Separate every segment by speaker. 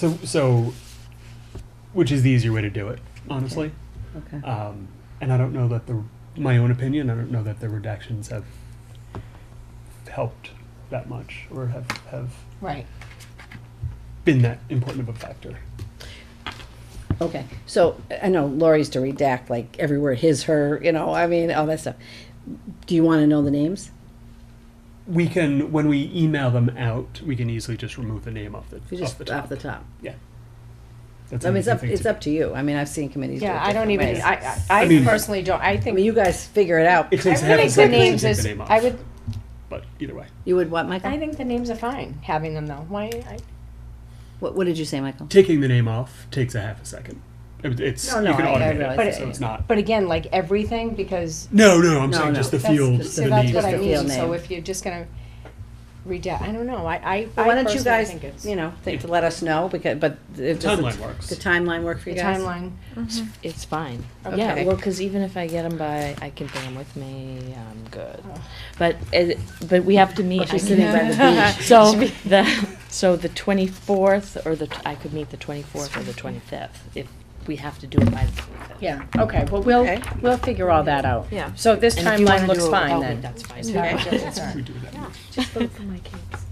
Speaker 1: So, so, which is the easier way to do it, honestly.
Speaker 2: Okay.
Speaker 1: Um, and I don't know that the my own opinion. I don't know that the redactions have helped that much or have have
Speaker 2: Right.
Speaker 1: been that important of a factor.
Speaker 2: Okay, so I know Lori's to redact like every word, his, her, you know, I mean, all that stuff. Do you want to know the names?
Speaker 1: We can when we email them out, we can easily just remove the name off the,
Speaker 2: If you
Speaker 1: off
Speaker 2: just
Speaker 1: the top.
Speaker 2: off the top.
Speaker 1: yeah, that's
Speaker 2: I mean, it's
Speaker 1: an easy
Speaker 2: up,
Speaker 1: thing
Speaker 2: it's
Speaker 1: to
Speaker 2: up to you. I mean, I've seen committees do it
Speaker 3: Yeah, I don't
Speaker 2: different
Speaker 3: even,
Speaker 2: ways.
Speaker 3: I,
Speaker 1: I
Speaker 3: I
Speaker 1: mean-
Speaker 3: I personally don't, I
Speaker 2: I
Speaker 3: think.
Speaker 2: mean, you guys figure it out.
Speaker 1: It
Speaker 3: I
Speaker 1: takes
Speaker 3: really
Speaker 1: half a
Speaker 3: think
Speaker 1: second
Speaker 3: the
Speaker 1: to
Speaker 3: names
Speaker 1: take
Speaker 3: is,
Speaker 1: the name off.
Speaker 3: I would,
Speaker 1: But either way,
Speaker 2: You would what,
Speaker 3: I
Speaker 2: Michael?
Speaker 3: think the names are fine, having them though, why, I,
Speaker 2: What, what did you say, Michael?
Speaker 1: taking the name off takes a half a second. It- It's
Speaker 2: No, no,
Speaker 1: you can
Speaker 2: I- I
Speaker 1: automate it,
Speaker 2: realize
Speaker 3: that.
Speaker 1: so it's not.
Speaker 3: but again, like everything, because
Speaker 1: No, no, I'm
Speaker 2: No,
Speaker 1: saying
Speaker 2: no.
Speaker 1: just the
Speaker 2: That's
Speaker 1: field,
Speaker 2: just-
Speaker 3: So
Speaker 1: the
Speaker 3: that's
Speaker 1: name.
Speaker 3: what
Speaker 2: Just
Speaker 3: I
Speaker 2: the field
Speaker 3: mean, so
Speaker 2: name.
Speaker 3: if you're just gonna redact, I don't know, I, I,
Speaker 2: Well, Why
Speaker 3: I
Speaker 2: don't you
Speaker 3: personally
Speaker 2: guys,
Speaker 3: think it's.
Speaker 2: you know, think, let us know, because, but. it just-
Speaker 1: Timeline works.
Speaker 2: The timeline work for
Speaker 3: The
Speaker 2: you guys?
Speaker 3: timeline,
Speaker 4: It's- It's fine.
Speaker 2: Mm-hmm. Okay.
Speaker 4: Yeah, well, because even if I get them by, I can bring them with me. I'm good.
Speaker 3: Oh.
Speaker 4: But it, but we have to meet.
Speaker 2: Oh, she's
Speaker 4: I
Speaker 2: sitting
Speaker 4: can-
Speaker 2: by the beach.
Speaker 4: So the so the twenty fourth or the t- I could meet the twenty fourth or the twenty fifth if we have to do it by the twenty fifth.
Speaker 3: yeah, okay, well, we'll,
Speaker 2: Okay.
Speaker 3: we'll figure all that out.
Speaker 5: Yeah.
Speaker 3: So this timeline looks fine then.
Speaker 4: That's fine. too.
Speaker 3: Yeah,
Speaker 4: That's
Speaker 3: that's all
Speaker 1: We
Speaker 3: right.
Speaker 1: do that.
Speaker 5: Just vote for my kids.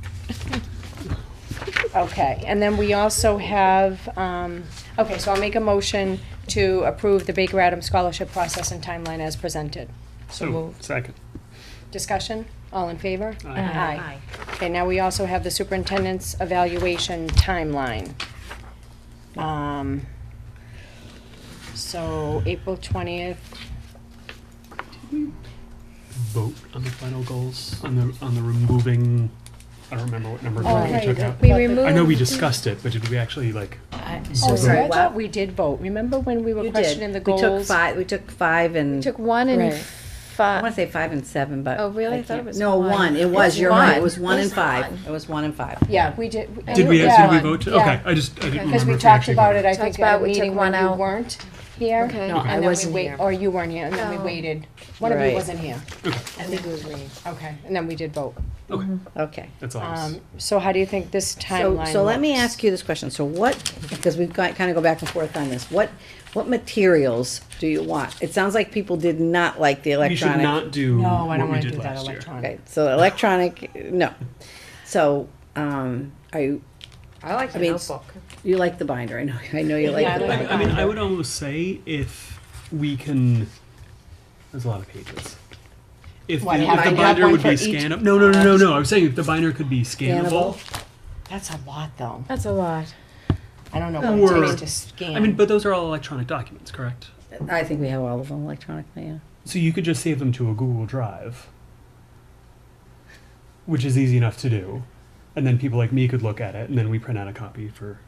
Speaker 3: Okay, and then we also have, um, okay, so I'll make a motion to approve the Baker Adams Scholarship Process and Timeline as presented.
Speaker 1: So second.
Speaker 3: Discussion, all in favor?
Speaker 1: Aye.
Speaker 3: Aye. Okay, now we also have the superintendent's evaluation timeline. Um, So April twentieth,
Speaker 1: vote on the final goals on the on the removing. I don't remember what number goal we
Speaker 3: Okay,
Speaker 1: took out.
Speaker 3: Oh, we
Speaker 1: I know
Speaker 3: removed,
Speaker 1: we discussed it, but did we actually like?
Speaker 4: I-
Speaker 3: oh, sorry, I
Speaker 2: Wow.
Speaker 3: thought we did vote. Remember when we were
Speaker 2: You did.
Speaker 3: questioning the
Speaker 2: We
Speaker 3: goals?
Speaker 2: took five, we took five
Speaker 5: We
Speaker 2: and,
Speaker 5: took one and
Speaker 2: I
Speaker 4: Right.
Speaker 2: want
Speaker 5: five.
Speaker 2: to say five and seven, but.
Speaker 5: Oh, really? I thought it
Speaker 2: can't-
Speaker 5: was
Speaker 2: No,
Speaker 5: one.
Speaker 2: one, it
Speaker 5: It
Speaker 2: was,
Speaker 5: was
Speaker 2: you're right,
Speaker 5: one.
Speaker 2: it was one
Speaker 5: It
Speaker 2: and
Speaker 5: was
Speaker 2: five,
Speaker 5: one.
Speaker 2: it was one and five.
Speaker 3: Yeah, we did. I
Speaker 1: Did we?
Speaker 3: know-
Speaker 1: Did we
Speaker 3: yeah,
Speaker 1: vote?
Speaker 3: yeah.
Speaker 1: Okay, I just I didn't remember.
Speaker 3: Because we
Speaker 1: if we
Speaker 3: talked
Speaker 1: actually
Speaker 3: about it,
Speaker 1: voted.
Speaker 3: I
Speaker 5: Talked
Speaker 3: think,
Speaker 5: about
Speaker 3: at a
Speaker 5: it, we took
Speaker 3: meeting
Speaker 5: one
Speaker 3: when you
Speaker 5: out.
Speaker 3: weren't here.
Speaker 5: Okay. Oh.
Speaker 4: No,
Speaker 3: and
Speaker 4: I
Speaker 3: then we
Speaker 4: wasn't
Speaker 3: wait-
Speaker 4: here.
Speaker 3: Or you weren't here, and then we
Speaker 5: No.
Speaker 3: waited. One of you
Speaker 2: Right.
Speaker 3: wasn't here.
Speaker 4: I think it was me.
Speaker 3: Okay, and then we did vote.
Speaker 1: Okay,
Speaker 2: Okay.
Speaker 1: that's all. I was-
Speaker 3: Um, So how do you think this
Speaker 2: So,
Speaker 3: timeline
Speaker 2: so let me
Speaker 3: looks?
Speaker 2: ask you this question, so what, because we've got, kinda go back and forth on this, what, what materials do you want? It sounds like people did not like the
Speaker 1: we should
Speaker 2: electronic.
Speaker 1: not do
Speaker 3: No, I
Speaker 1: what
Speaker 3: don't
Speaker 1: we
Speaker 3: want to
Speaker 1: did
Speaker 3: do that
Speaker 1: last year.
Speaker 3: electronic.
Speaker 2: Okay, so electronic, no. So, um, are you,
Speaker 5: I like
Speaker 2: I mean, you like the binder, I know, I know you
Speaker 3: Yeah,
Speaker 2: like
Speaker 3: I
Speaker 2: the
Speaker 3: like
Speaker 1: I,
Speaker 2: binder.
Speaker 1: I mean, I would almost say if we can, there's a lot of pages. If
Speaker 3: Why,
Speaker 1: the,
Speaker 3: have
Speaker 1: if the
Speaker 3: one- have
Speaker 1: binder
Speaker 3: one
Speaker 1: would be
Speaker 3: for each?
Speaker 1: scannable. No, no, no, no, no. I was saying if the binder could be scannable.
Speaker 2: Scannable.
Speaker 3: That's a lot, though.
Speaker 4: That's a lot.
Speaker 3: I don't know what it
Speaker 1: Or-
Speaker 3: takes to scan.
Speaker 1: I mean, but those are all electronic documents, correct?
Speaker 2: I think we have all of them electronically, yeah.
Speaker 1: So you could just save them to a Google Drive, which is easy enough to do. And then people like me could look at it, and then we print out a copy for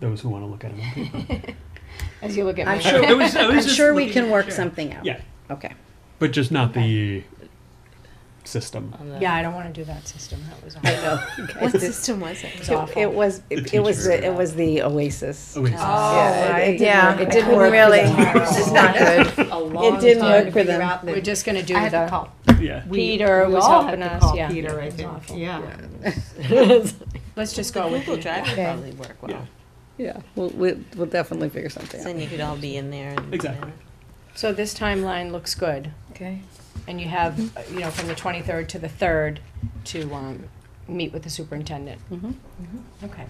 Speaker 1: those who want to look at it.
Speaker 3: As you look at
Speaker 2: I'm
Speaker 3: me.
Speaker 2: sure,
Speaker 1: I was- I was
Speaker 2: I'm
Speaker 1: just
Speaker 2: sure we
Speaker 1: looking
Speaker 2: can
Speaker 1: at
Speaker 2: work
Speaker 1: Sharon.
Speaker 2: something out.
Speaker 1: Yeah,
Speaker 2: Okay,
Speaker 1: but just not the system.
Speaker 4: on the-
Speaker 3: Yeah, I don't want to do that system. That was
Speaker 2: I
Speaker 3: awful.
Speaker 2: know. you guys
Speaker 5: What
Speaker 2: did-
Speaker 5: system was it?
Speaker 3: It was
Speaker 2: It
Speaker 3: awful.
Speaker 2: it was, it it was,
Speaker 1: teacher.
Speaker 2: the- it was the Oasis.
Speaker 1: Oh, wait.
Speaker 3: Uh,
Speaker 2: Yeah, it- it didn't
Speaker 5: Yeah,
Speaker 2: work.
Speaker 5: it
Speaker 2: It
Speaker 5: didn't
Speaker 2: didn't work for
Speaker 5: really,
Speaker 2: them.
Speaker 5: it's just not good.
Speaker 4: A long
Speaker 2: It didn't
Speaker 4: time.
Speaker 2: work for them.
Speaker 3: We're just going to do
Speaker 5: I had to
Speaker 3: the,
Speaker 5: call.
Speaker 1: yeah.
Speaker 3: Peter
Speaker 5: We
Speaker 3: was
Speaker 5: all
Speaker 3: helping
Speaker 5: had to
Speaker 3: us,
Speaker 5: call
Speaker 3: yeah.
Speaker 5: Peter, I
Speaker 3: It was
Speaker 5: think,
Speaker 3: awful.
Speaker 5: yeah.
Speaker 3: let's just go with
Speaker 6: Google Drive
Speaker 3: it.
Speaker 6: would probably work well.
Speaker 2: Yeah, we'll, we'll we'll definitely figure something out.
Speaker 6: Then you could all be in there and.
Speaker 1: Exactly.
Speaker 3: So this timeline looks good.
Speaker 5: Okay.
Speaker 3: And you have, uh, you know, from the 23rd to the 3rd to um, meet with the superintendent.
Speaker 2: Mhm.
Speaker 3: Okay.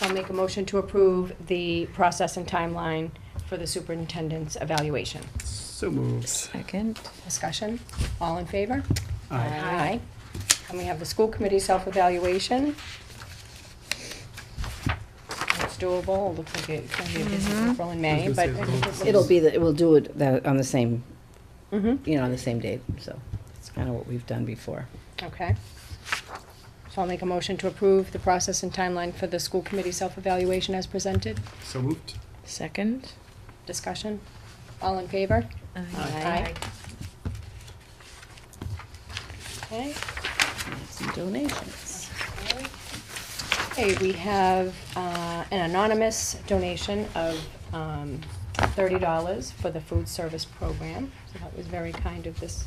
Speaker 3: I'll make a motion to approve the process and timeline for the superintendent's evaluation.
Speaker 1: So moved.
Speaker 5: Second.
Speaker 3: Discussion? All in favor?
Speaker 1: Aye.
Speaker 3: Aye. And we have the school committee self-evaluation. It's doable, it looks like it's gonna be a busy April and May,
Speaker 1: I was
Speaker 3: but.
Speaker 1: gonna say,
Speaker 3: it looks-
Speaker 2: It'll be that, we'll do it that- on the same,
Speaker 3: Mhm.
Speaker 2: you know, on the same date, so it's kind of what we've done before.
Speaker 3: Okay. So I'll make a motion to approve the process and timeline for the school committee self-evaluation as presented.
Speaker 1: So moved.
Speaker 4: Second.
Speaker 3: Discussion? All in favor? Aye. Okay.
Speaker 2: Some donations.
Speaker 3: Okay, we have uh, an anonymous donation of um, $30 for the food service program. So that was very kind of this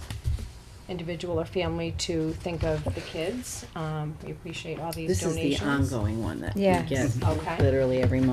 Speaker 3: individual or family to think of the kids. Um, we appreciate all these
Speaker 2: This is
Speaker 3: donations.
Speaker 2: the ongoing one that we
Speaker 3: Yes.
Speaker 2: get
Speaker 3: Okay.
Speaker 2: literally every month.